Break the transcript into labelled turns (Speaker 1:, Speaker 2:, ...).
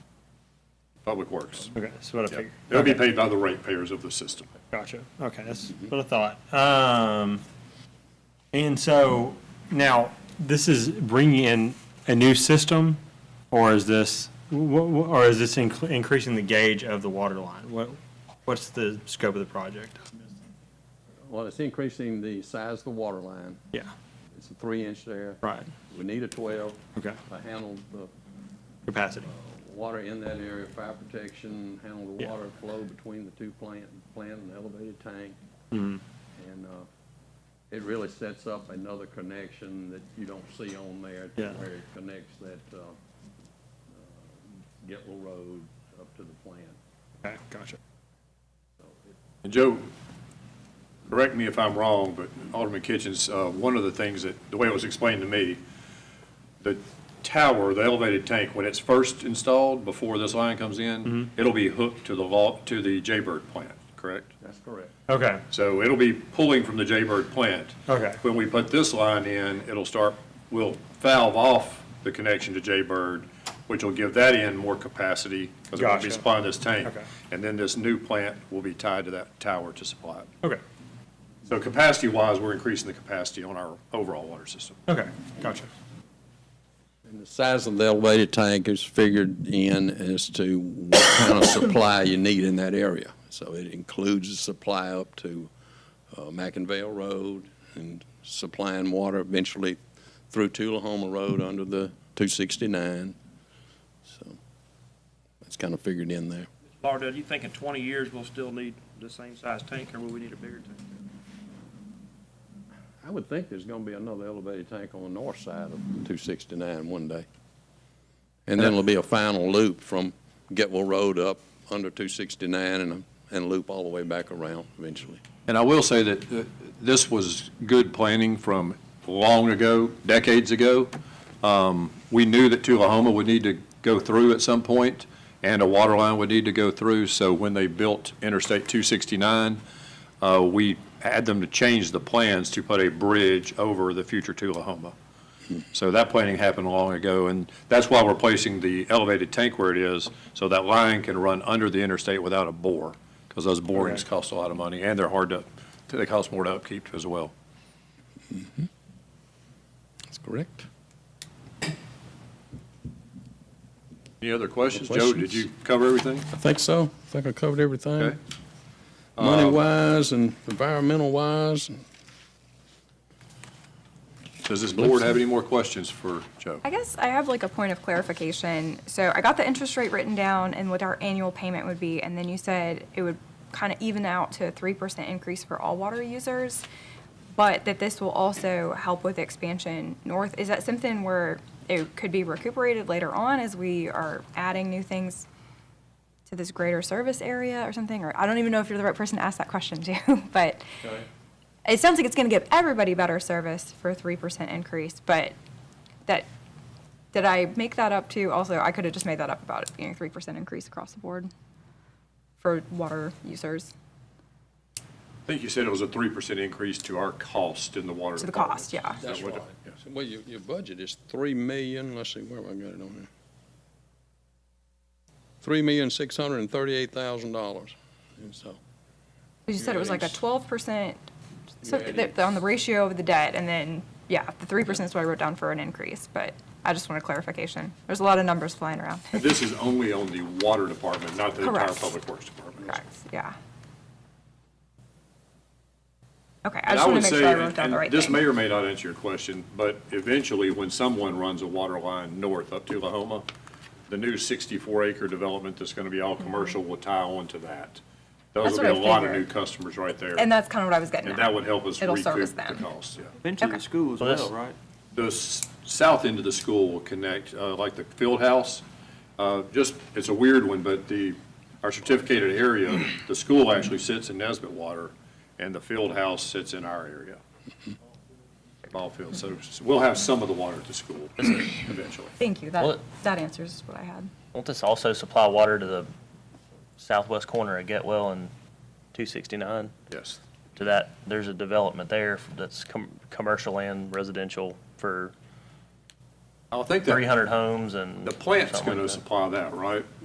Speaker 1: Public Works.
Speaker 2: Okay, that's what I
Speaker 1: Yep.
Speaker 2: figured.
Speaker 1: It'll be
Speaker 2: Okay,
Speaker 1: paid by the ratepayers of the system.
Speaker 2: Gotcha. Okay, that's what I thought. Um, and so now this is bringing in a new system or is this, wh- wh- or is this inc- increasing the gauge of the water line? What, what's the scope of the project?
Speaker 3: Well, it's increasing the size of the water line.
Speaker 2: Yeah,
Speaker 3: It's a three inch there.
Speaker 2: right.
Speaker 3: We need a twelve.
Speaker 2: Okay.
Speaker 3: To handle the
Speaker 2: Capacity.
Speaker 3: water in that area, fire protection, handle the
Speaker 2: Yeah.
Speaker 3: water flow between the two plant, plant and elevated tank.
Speaker 2: Mm-hmm.
Speaker 3: And, uh, it really sets up another connection that you don't see on there to
Speaker 2: Yeah.
Speaker 3: where it connects that, uh, uh, Getlow Road up to the plant.
Speaker 2: Okay, gotcha.
Speaker 1: And Joe, correct me if I'm wrong, but Alderman Kitchens, uh, one of the things that, the way it was explained to me, the tower, the elevated tank, when it's first installed, before this line comes in,
Speaker 2: Mm-hmm.
Speaker 1: it'll be hooked to the vault, to the Jaybird plant, correct?
Speaker 3: That's correct.
Speaker 2: Okay,
Speaker 1: So it'll be pulling from the Jaybird plant.
Speaker 2: Okay.
Speaker 1: When we put this line in, it'll start, we'll valve off the connection to Jaybird, which will give that end more capacity because it will
Speaker 2: Gotcha.
Speaker 1: be supplying this tank.
Speaker 2: Okay.
Speaker 1: And then this new plant will be tied to that tower to supply it.
Speaker 2: okay,
Speaker 1: So capacity-wise, we're increasing the capacity on our overall water system.
Speaker 2: okay, gotcha.
Speaker 3: And the size of the elevated tank is figured in as to what kind of supply you need in that area. So it includes the supply up to uh, McInville Road and supplying water eventually through Tullahoma Road under the 269. So that's kind of figured in there.
Speaker 4: Lauderdale, do you think in 20 years we'll still need the same size tank, or will we need a bigger tank?
Speaker 3: I would think there's going to be another elevated tank on the north side of 269 one day. And then it'll be a final loop from Getwell Road up under 269 and, and loop all the way back around eventually.
Speaker 1: And I will say that uh, this was good planning from long ago, decades ago. Um, We knew that Tullahoma would need to go through at some point, and a water line would need to go through, so when they built Interstate 269, uh, we had them to change the plans to put a bridge over the future Tullahoma. So that planning happened long ago, and that's why we're placing the elevated tank where it is, so that line can run under the interstate without a bore, because those borings
Speaker 2: Okay.
Speaker 1: cost a lot of money, and they're hard to, they cost more to upkeep as well.
Speaker 3: Mm-hmm. That's correct.
Speaker 1: Any other questions?
Speaker 3: No
Speaker 1: Joe, did you cover everything?
Speaker 3: I think so. I think I covered
Speaker 1: Okay.
Speaker 3: everything, money-wise and environmental-wise.
Speaker 1: Does this board have any more questions for Joe?
Speaker 5: I guess I have like a point of clarification. So I got the interest rate written down and what our annual payment would be, and then you said it would kind of even out to a three percent increase for all water users, but that this will also help with expansion north. Is that something where it could be recuperated later on as we are adding new things to this greater service area or something? Or I don't even know if you're the right person to ask that question to, but it sounds like it's going to give everybody better service for a three percent increase, but that, did I make that up too? Also, I could have just made that up about it being a three percent increase across the board for water users,
Speaker 1: I think you said it was a three percent increase to our cost in the water.
Speaker 5: to the
Speaker 1: department.
Speaker 5: cost, yeah.
Speaker 1: Is that what- yeah.
Speaker 3: Well, your, your budget is 3 million, let's see, where have I got it on here? $3,638,000, and so.
Speaker 5: You said it was like a
Speaker 3: Yes.
Speaker 5: twelve percent, so
Speaker 3: Yeah, it
Speaker 5: th- on the ratio of the debt, and then, yeah, the three percent is what I wrote down for an increase, but I just want a clarification. There's a lot of numbers flying around.
Speaker 1: And This is only on the water department, not the entire
Speaker 5: Correct.
Speaker 1: public works department.
Speaker 5: Correct, yeah. Okay, I
Speaker 1: And
Speaker 5: just
Speaker 1: I
Speaker 5: want
Speaker 1: would
Speaker 5: to make
Speaker 1: say,
Speaker 5: sure I wrote down
Speaker 1: and
Speaker 5: the right
Speaker 1: this
Speaker 5: thing.
Speaker 1: may or may not answer your question, but eventually, when someone runs a water line north up to Lahoma, the new 64-acre development that's going to be all commercial will tie on to that. Those
Speaker 5: Mm-hmm. That's
Speaker 1: will be a
Speaker 5: what I
Speaker 1: lot of new
Speaker 5: figured.
Speaker 1: customers right there.
Speaker 5: And that's kind of what I was getting at.
Speaker 1: And that would help us
Speaker 5: It'll
Speaker 1: recoup
Speaker 5: service
Speaker 1: the
Speaker 5: them.
Speaker 1: cost, yeah.
Speaker 4: Into
Speaker 5: Okay.
Speaker 4: the school as
Speaker 2: Well,
Speaker 4: well,
Speaker 2: that's-
Speaker 4: right?
Speaker 1: The s- south end of the school will connect, uh, like the field house. Uh, Just, it's a weird one, but the, our certificated area, the school actually sits in Nesbit Water, and the field house sits in our area. Ball field, so s- we'll have some of the water at the school eventually.
Speaker 5: Thank you,
Speaker 6: Well,
Speaker 5: that,
Speaker 6: it-
Speaker 5: that answers what I had.
Speaker 6: Won't this also supply water to the southwest corner of Getwell and 269?
Speaker 1: Yes,
Speaker 6: To that, there's a development there that's com- commercial and residential for
Speaker 1: I think that
Speaker 6: 300 homes and.
Speaker 1: the plant's
Speaker 6: something
Speaker 1: going to
Speaker 6: like that.
Speaker 1: supply that, right?